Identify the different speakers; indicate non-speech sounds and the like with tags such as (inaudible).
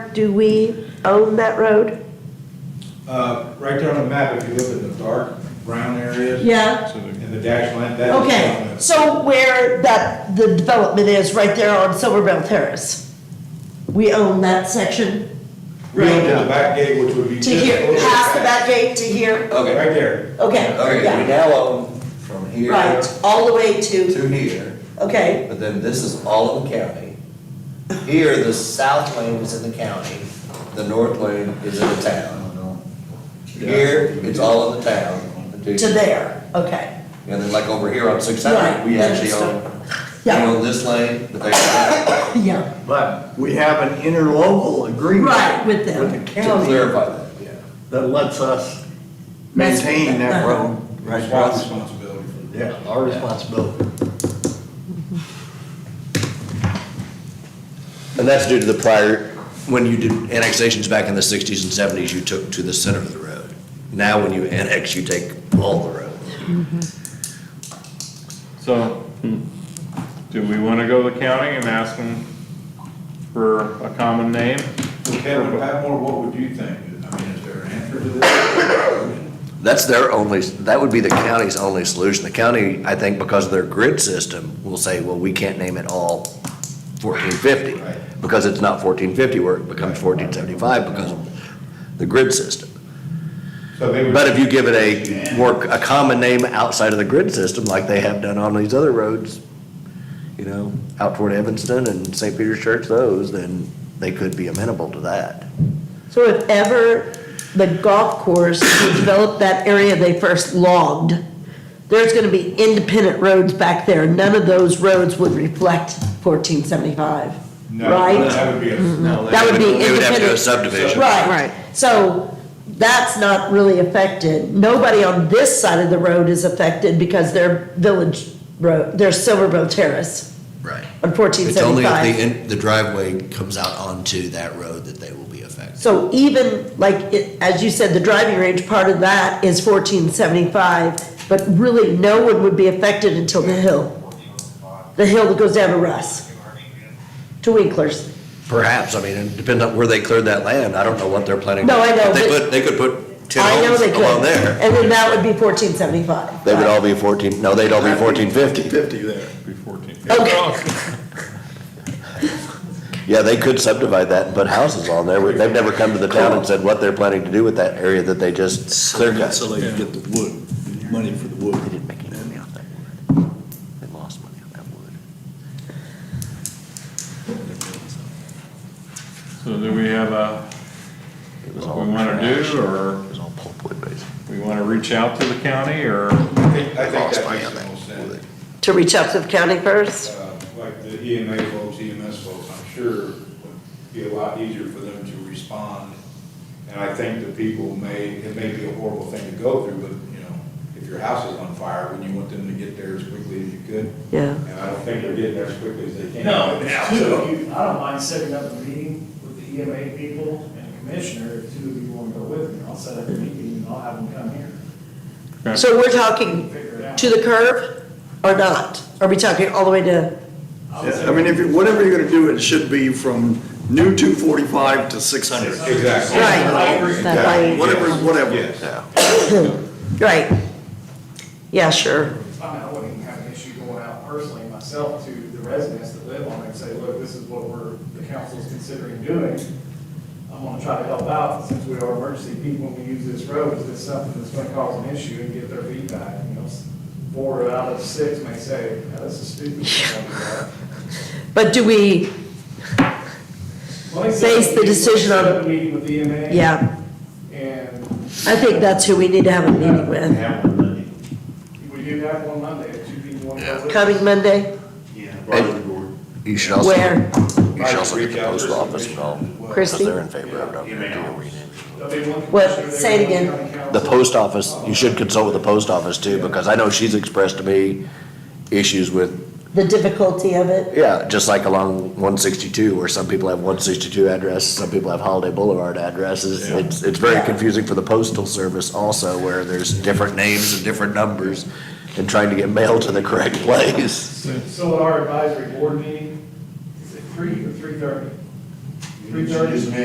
Speaker 1: do we own that road?
Speaker 2: Uh, right there on the map, if you look at the dark brown areas.
Speaker 1: Yeah.
Speaker 2: And the dash line, that is.
Speaker 1: Okay,
Speaker 2: on the-
Speaker 1: so where that, the development is, right there on Silverbell Terrace. We own that section,
Speaker 2: We own
Speaker 1: right?
Speaker 2: the back gate, which would be.
Speaker 1: To
Speaker 2: just a
Speaker 1: here,
Speaker 2: little bit
Speaker 1: past the
Speaker 2: back.
Speaker 1: back gate to here,
Speaker 2: Right
Speaker 3: Okay,
Speaker 2: there.
Speaker 1: okay,
Speaker 3: okay, we
Speaker 1: yeah,
Speaker 3: now own from here
Speaker 1: right, all the way to,
Speaker 3: to here,
Speaker 1: okay,
Speaker 3: but then this is all of the county. Here, the south lane is in the county, the north lane is in the town. Here, it's all in the town.
Speaker 1: to there, okay,
Speaker 3: And then like over here on six hundred, we
Speaker 1: Right,
Speaker 3: actually own, we
Speaker 1: yeah,
Speaker 3: own this lane, but they don't.
Speaker 1: yeah,
Speaker 4: But we have an interlocal agreement.
Speaker 1: Right, with them.
Speaker 4: With the
Speaker 3: To
Speaker 4: county
Speaker 3: clarify that, yeah.
Speaker 4: that lets us maintain that road. right
Speaker 2: It's our
Speaker 4: across-
Speaker 2: responsibility for the-
Speaker 4: Yeah, our responsibility.
Speaker 5: And that's due to the prior, when you did annexations back in the 60s and 70s, you took to the center of the road. Now, when you annex, you take all the road.
Speaker 6: So, do we wanna go to the county and ask them for a common name?
Speaker 2: Kevin Patmore, what would you think? I mean, is there an answer to this?
Speaker 5: That's their only, that would be the county's only solution. The county, I think, because of their grid system, will say, well, we can't name it all 1450,
Speaker 2: Right.
Speaker 5: because it's not 1450, where it becomes 1475 because of the grid system.
Speaker 2: So they would.
Speaker 5: But if you give it a, more, a common name outside of the grid system, like they have done on these other roads, you know, out toward Evanston and St. Peter's Church, those, then they could be amenable to that.
Speaker 1: so if ever the golf course developed that area they first logged, there's gonna be independent roads back there, none of those roads would reflect fourteen seventy-five,
Speaker 2: No,
Speaker 1: right?
Speaker 2: That would be a.
Speaker 1: That would be independent.
Speaker 5: They would have to go subdivision.
Speaker 1: Right.
Speaker 7: Right.
Speaker 1: So that's not really affected. Nobody on this side of the road is affected because their village road, their Silverbill Terrace
Speaker 5: Right.
Speaker 1: on fourteen
Speaker 5: It's only if the,
Speaker 1: seventy-five.
Speaker 5: in- the driveway comes out onto that road that they will be affected.
Speaker 1: So even, like, it, as you said, the driving range part of that is fourteen seventy-five, but really no one would be affected until the hill. The hill that goes down to Russ, to Winkler's.
Speaker 5: Perhaps, I mean, it depends on where they cleared that land. I don't know what they're planning.
Speaker 1: No, I know,
Speaker 5: They
Speaker 1: but-
Speaker 5: put, they could put ten
Speaker 1: I know
Speaker 5: homes
Speaker 1: they could.
Speaker 5: along there.
Speaker 1: And then that would be fourteen seventy-five.
Speaker 5: They would all be fourteen, no, they'd all be fourteen fifty.
Speaker 4: Fifty there.
Speaker 6: Be fourteen.
Speaker 1: Okay.
Speaker 5: Yeah, they could subdivide that and put houses on there. They've never come to the town and said what they're planning to do with that area that they just cleared cut.
Speaker 4: So they get the wood, money for the wood.
Speaker 5: They didn't make any money off that wood. They lost money on that wood.
Speaker 6: So do we have a,
Speaker 5: It was
Speaker 6: What
Speaker 5: all
Speaker 6: we wanna do,
Speaker 5: trash.
Speaker 6: or-
Speaker 5: It was all pulpwood, basically.
Speaker 6: we wanna reach out to the county, or
Speaker 2: I think, I think
Speaker 5: Lost
Speaker 2: that
Speaker 5: money
Speaker 2: makes
Speaker 5: on
Speaker 2: the
Speaker 5: that
Speaker 2: most
Speaker 5: wood.
Speaker 2: sense.
Speaker 1: To reach out to the county first?
Speaker 2: Uh, Like the EMA folks, EMS folks, I'm sure would be a lot easier for them to respond. And I think the people may, it may be a horrible thing to go through, but, you know, if your house is on fire, wouldn't you want them to get there as quickly as you could?
Speaker 1: Yeah.
Speaker 2: And I don't think they're getting there as quickly as they can.
Speaker 8: No,
Speaker 2: now.
Speaker 8: if two of you, I don't mind setting up a meeting with the EMA people and the commissioner, if two of you want to go with me, I'll set up a meeting and I'll have them come here.
Speaker 1: So we're talking
Speaker 8: Figure it out.
Speaker 1: to the curve or not? Are we talking all the way to,
Speaker 8: I would
Speaker 4: Yeah,
Speaker 8: say-
Speaker 4: I mean, if, you- whatever you're gonna do, it should be from new two forty-five to six hundred.
Speaker 2: Exactly.
Speaker 1: Right. That way-
Speaker 4: Whatever, whatever.
Speaker 2: Yes.
Speaker 1: right? Yeah, sure.
Speaker 8: I mean, I wouldn't even have an issue going out personally myself to the residents that live on it and say, look, this is what we're, the council's considering doing. I'm gonna try to help out, since we are emergency people and we use this road, is this something that's gonna cause an issue and get their feedback, you know? Four out of six may say, "Now, this is stupid.
Speaker 1: But do we,
Speaker 8: Let me
Speaker 1: Base the
Speaker 8: set up a meeting-
Speaker 1: decision on-
Speaker 8: Set up a meeting with the EMA.
Speaker 1: yeah,
Speaker 8: And
Speaker 1: I think that's who we need to have a meeting with.
Speaker 8: we do have one Monday, if two people want to go with us.
Speaker 1: Coming Monday,
Speaker 5: You should also,
Speaker 1: Where?
Speaker 5: you should also get the postal office involved. because
Speaker 1: Christie?
Speaker 5: They're in favor of it.
Speaker 8: There'll be one
Speaker 1: What?
Speaker 8: commissioner,
Speaker 1: Say it
Speaker 8: there'll be
Speaker 1: again.
Speaker 8: one county
Speaker 5: The
Speaker 8: council.
Speaker 5: post office, you should consult with the post office too, because I know she's expressed to me issues with
Speaker 1: the difficulty of it.
Speaker 5: Yeah, just like along one sixty-two, where some people have one sixty-two addresses, some people have Holiday Boulevard addresses. It's, it's very confusing for the postal service also, where there's different names and different numbers, and trying to get mail to the correct (laughs) place.
Speaker 8: So at our advisory board meeting, is it three or three thirty? Three thirty?